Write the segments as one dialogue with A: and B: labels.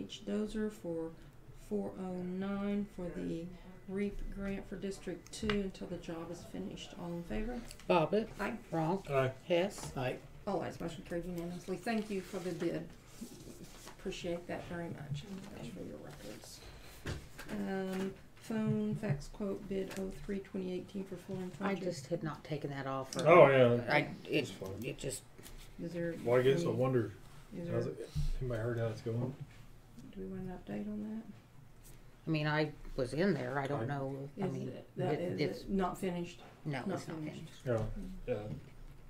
A: H. Dozer for four oh nine for the REAP grant for District Two until the job is finished. All in favor?
B: Bobbit.
A: Aye.
B: Wrong.
C: Aye.
B: Hess.
D: Aye.
A: All ayes, motion carried unanimously. Thank you for the bid. Appreciate that very much, and thanks for your records. Um, phone fax quote bid oh three twenty eighteen for full and
B: I
A: project.
B: just had not taken that off. or-
C: Oh, yeah.
B: I,
C: It's
B: it,
C: fine.
B: it just,
A: Is there?
C: Well, I guess I
A: any-
C: wonder,
A: Is there,
C: how's
A: do
C: it, anybody heard how it's going?
A: we want an update on
B: I mean, I was in there. I
C: Aye.
B: don't know.
A: that?
B: I
A: Is
B: mean,
A: it- that-
B: it-
A: is
B: it's-
A: it not finished?
B: no,
A: Not
B: it's not
A: finished.
B: finished.
C: Yeah, yeah.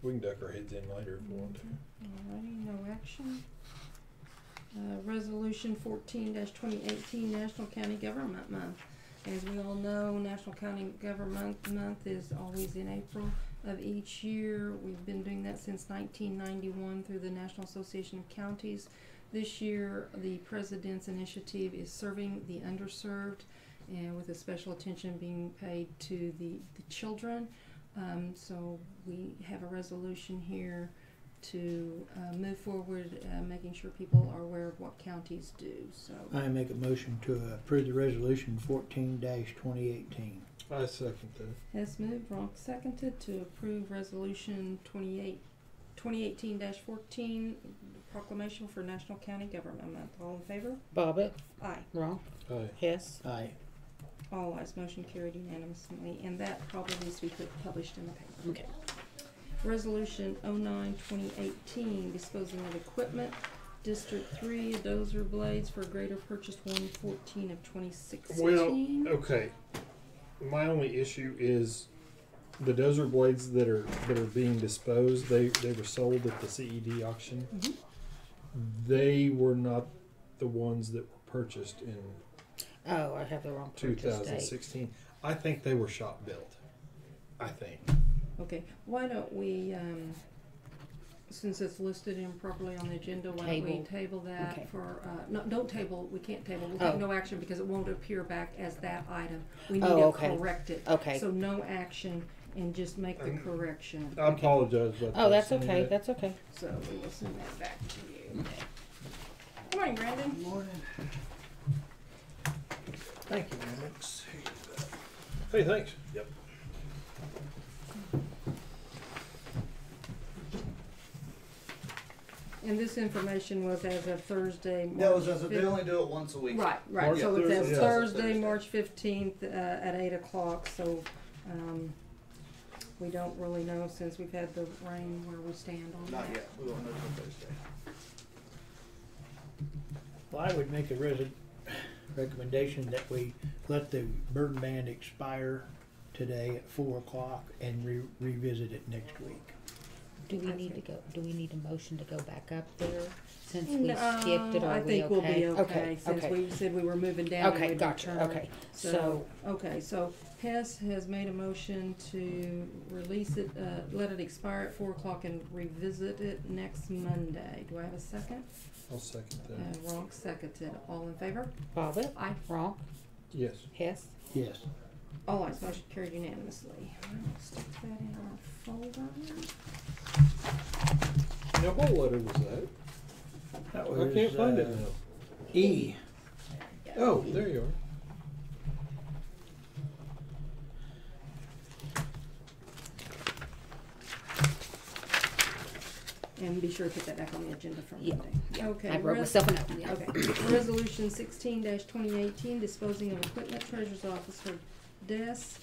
C: We can duck our heads in later if we want to.
A: Alrighty, no action. Uh, resolution fourteen twenty eighteen, National County Government Month. As we all know, National County Government Month is always in April of each year. We've been doing that since nineteen ninety-one through the National Association of Counties. This year, the president's initiative is serving the underserved and with a special attention being paid to the, the children. Um, so we have a resolution here to uh, move forward, uh, making sure people are aware of what counties do. So,
D: I make a motion to approve the resolution fourteen twenty eighteen.
C: I second that.
A: Hess moved, Ronk seconded to approve Resolution 28 2018-14, proclamation for National County Government Month. All in favor?
B: Bobbit.
A: Aye.
B: Wrong.
C: Aye.
B: Hess.
D: Aye.
A: All ayes, motion carried unanimously, and that probably needs to be put, published in the paper.
B: Okay.
A: Resolution 09-2018, disposing of equipment. District Three, dozer blades for greater purchase one fourteen of twenty sixteen.
C: Well, okay. My only issue is the dozer blades that are that are being disposed. They they were sold at the CED auction.
B: Mm-hmm.
A: Mhm.
C: They were not the ones that were purchased in
B: Oh, I have the wrong purchase date.
C: 2016. I think they were shop built. I think.
A: Okay, why don't we, um, since it's listed improperly on the agenda, why don't we
B: Table.
A: table
B: Okay.
A: that for, uh, no, don't table, we can't table, we'll take
B: Oh.
A: no action because it won't appear back as that item. We need
B: Oh,
A: to
B: okay.
A: correct it.
B: Okay.
A: So no action and just make the
C: Um,
A: correction.
C: I apologize. About
B: Oh,
C: that,
B: that's
C: Cindy.
B: okay. That's okay.
A: So we will send that back to you. Good morning, Brandon.
D: Morning. Thank you, Alex.
C: Hey, thanks. Yep.
A: And this information was as of Thursday, March
E: That was as a, they
A: fif-
E: only do it once a week.
A: Right, right,
C: March
A: so it
C: Thursday,
A: says
C: yeah.
A: Thursday,
E: Thursday.
A: March fifteenth, uh, at eight o'clock, so, um, we don't really know since we've had the rain where we stand on
E: Not
A: that.
E: yet. We won't know till Thursday.
D: Well, I would make a resi- recommendation that we let the burn ban expire today at four o'clock and re- revisit it next week.
B: Do we
A: That's
B: need to
A: it.
B: go, do we need a motion to go back up there since we skipped it?
A: No,
B: Are
A: I think we'll be okay, since
B: okay.
A: we said we were moving down and
B: Okay,
A: we'd
B: gotcha,
A: return.
B: okay.
A: So, okay, so Hess has made a motion to release it, uh, let it expire at four o'clock and revisit it next Monday. Do I have a second?
C: I'll second
A: Uh,
C: that.
A: Ronk seconded, all in favor?
B: Bobbit.
A: Aye.
B: Wrong.
C: Yes.
B: Hess.
D: Yes.
A: All ayes, motion carried unanimously. I'll Stick that in our folder.
C: Now, what letter was that?
D: That
C: I can't
D: was,
C: find it
D: uh,
C: now.
D: E.
C: Oh, there you are.
A: And be sure to put that back on the agenda for
B: Yeah,
A: Monday. Okay.
B: I wrote
A: res-
B: myself a note.
A: yeah, Okay. Resolution sixteen twenty eighteen, disposing of equipment, treasurer's office for desk.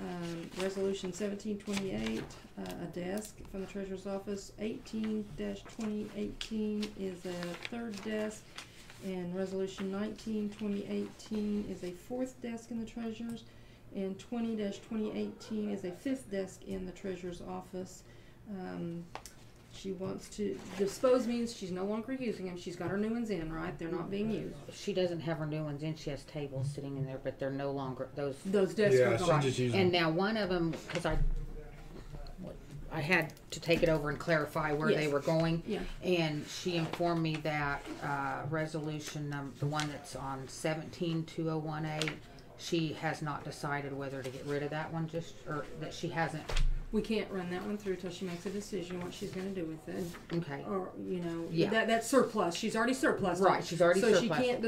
A: Um, resolution seventeen twenty-eight, uh, a desk from the treasurer's office. Eighteen twenty eighteen is a third desk. And resolution nineteen twenty eighteen is a fourth desk in the treasurer's. And twenty twenty eighteen is a fifth desk in the treasurer's office. Um, she wants to dispose means she's no longer using them. She's got her new ones in, right? They're not being used.
B: She doesn't have her new ones in. She has tables sitting in there, but they're no longer those.
A: Those desks are gone.
C: using.
B: And now one of them, because I, I had to take it over and clarify where they
A: Yes.
B: were going.
A: Yeah.
B: And she informed me that uh, resolution, num- the one that's on seventeen two oh one eight, she has not decided whether to get rid of that one just, or that she hasn't.
A: We can't run that one through till she makes a decision what she's going to do with it,
B: Okay.
A: or you know,
B: Yeah.
A: that that's surplus. She's already surplus.
B: Right, she's already
A: so she
B: surplused.
A: can't